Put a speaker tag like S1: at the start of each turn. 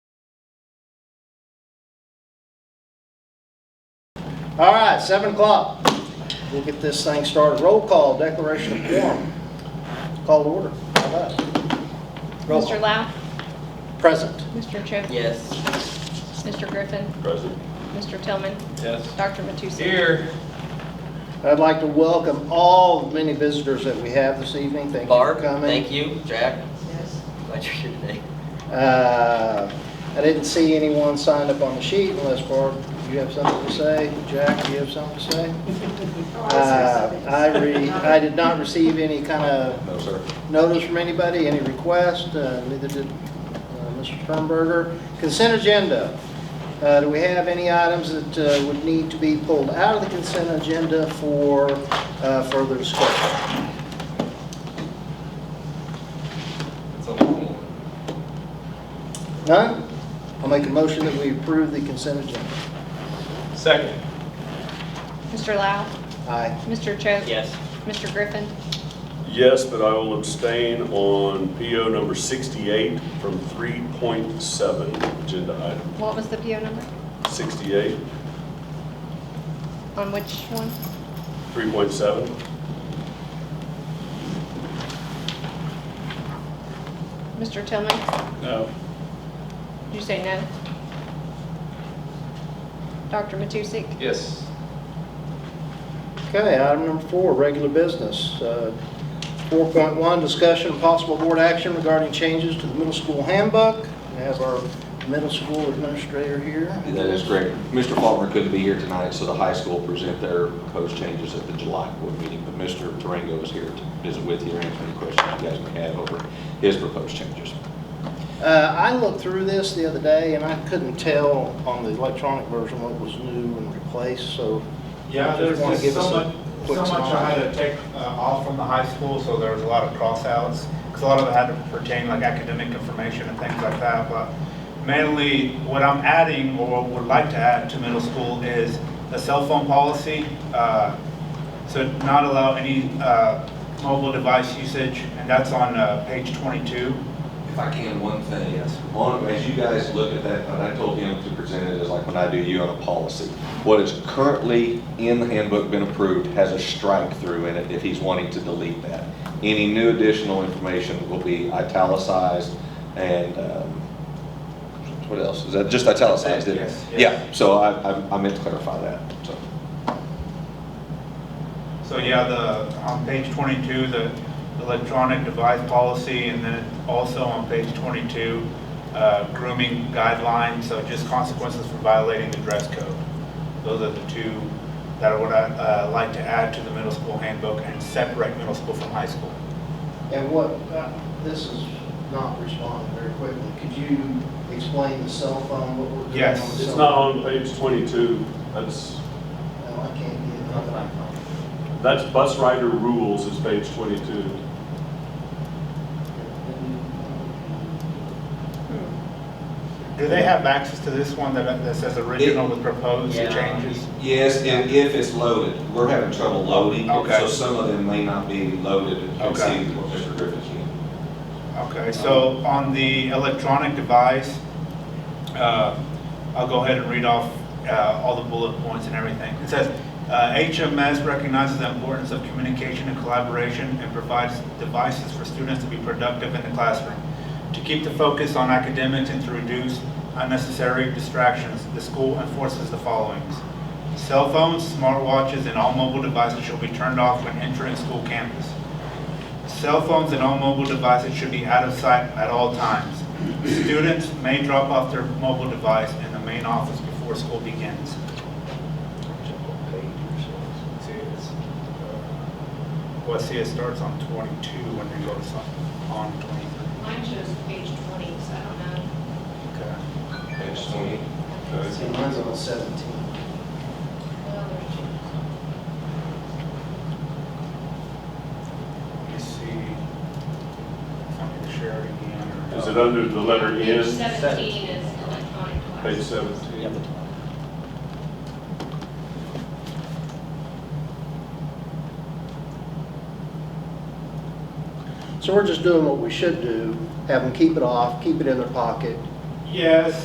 S1: All right, 7 o'clock. We'll get this thing started. Roll call, declaration of quorum. Call to order. How about it? Roll
S2: Mr.
S1: call.
S2: Lau?
S1: Present.
S2: Mr. Cho?
S3: Yes.
S2: Mr. Griffin?
S4: Present.
S2: Mr. Tillman?
S4: Yes.
S2: Dr. Matusi?
S4: Here.
S1: I'd like to welcome all the many visitors that we have this evening. Thank you for
S3: Barb,
S1: coming.
S3: thank you. Jack? Glad you're here today.
S1: Uh, I didn't see anyone signed up on the sheet unless Barb, you have something to say? Jack, you have something to say? Uh, I re, I did not receive any kind of
S4: No, sir.
S1: notice from anybody, any request, uh, neither did uh, Mr. Sternberger. Consent agenda. Uh, Do we have any items that uh, would need to be pulled out of the consent agenda for uh, further discussion?
S4: It's a long one.
S1: None? I'll make a motion that we approve the consent agenda.
S4: Second.
S2: Mr. Lau?
S1: Aye.
S2: Mr. Cho?
S3: Yes.
S2: Mr. Griffin?
S5: Yes, but I will abstain on PO number 68 from 3.7, agenda item
S2: What was the PO number?
S5: 68,
S2: On which one?
S5: 3.7.
S2: Mr. Tillman?
S4: No.
S2: Did you say no? Dr. Matusi?
S4: Yes.
S1: Okay, item number four, regular business. Uh, 4.1, discussion and possible board action regarding changes to the middle school handbook. We have our middle school administrator here.
S6: That is correct. Mr. Faulkner couldn't be here tonight, so the high school present their proposed changes at the July board meeting. But Mr. Durango is here to visit with you, and answer any questions you guys may have over his proposed changes.
S1: Uh, I looked through this the other day, and I couldn't tell on the electronic version what was new and replaced, so
S7: Yeah,
S1: I
S7: there's
S1: just wanna
S7: just
S1: give
S7: so
S1: us a
S7: much, so
S1: quick
S7: much I had to
S1: synopsis.
S7: take uh, off from the high school, so there was a lot of crossouts. Because a lot of it had to pertain like academic information and things like that, but mainly what I'm adding or what would like to add to middle school is the cell phone policy. uh, So not allow any uh, mobile device usage, and that's on uh, page 22.
S6: If I can, one thing.
S7: Yes.
S6: On, as you guys look at that, and I told him to present it as like when I do you on a policy. What is currently in the handbook been approved has a strike through in it if he's wanting to delete that. Any new additional information will be italicized and, um, what else? Is that just italicized? isn't it?
S7: Yes, yes.
S6: Yeah, so I, I- I meant to clarify that, so.
S7: So yeah, the, on page 22, the electronic device policy, and then also on page 22, uh, grooming guidelines, so just consequences for violating the dress code. Those are the two that are what I uh, like to add to the middle school handbook and separate middle school from high school.
S1: And what, uh, this is not responding very quickly. Could you explain the cell phone, what we're doing on the
S7: Yes.
S1: cell phone?
S5: It's not on page 22. That's,
S1: No, I can't get it.
S5: that's bus rider rules is page 22.
S7: Do they have access to this one that that says original with proposed
S3: Yeah.
S7: changes?
S6: Yes, and if it's loaded, we're having trouble loading.
S7: Okay.
S6: So some of them may not be loaded and
S7: Okay.
S6: see what Mr. Griffin's doing.
S7: Okay, so on the electronic device, uh, I'll go ahead and read off uh, all the bullet points and everything. It says, uh, "HMS recognizes the importance of communication and collaboration and provides devices for students to be productive in the classroom. To keep the focus on academics and to reduce unnecessary distractions, the school enforces the followings. Cell phones, smartwatches, and all mobile devices shall be turned off when entering school campus. Cell phones and all mobile devices should be out of sight at all times. Students may drop off their mobile device in the main office before school begins. See, it's, uh, Well, see, it starts on 22 when they go to some, on 23.
S8: Mine shows page 20, so I don't know.
S7: Okay.
S6: Page 20.
S1: See, mine's on 17.
S8: Well, there's two.
S7: Let me see. If I can share it again. or-
S5: Is it under the letter
S8: Page
S5: N?
S8: 17 is electronic device.
S5: Page 17.
S1: So we're just doing what we should do, have them keep it off, keep it in their pocket,
S7: Yes,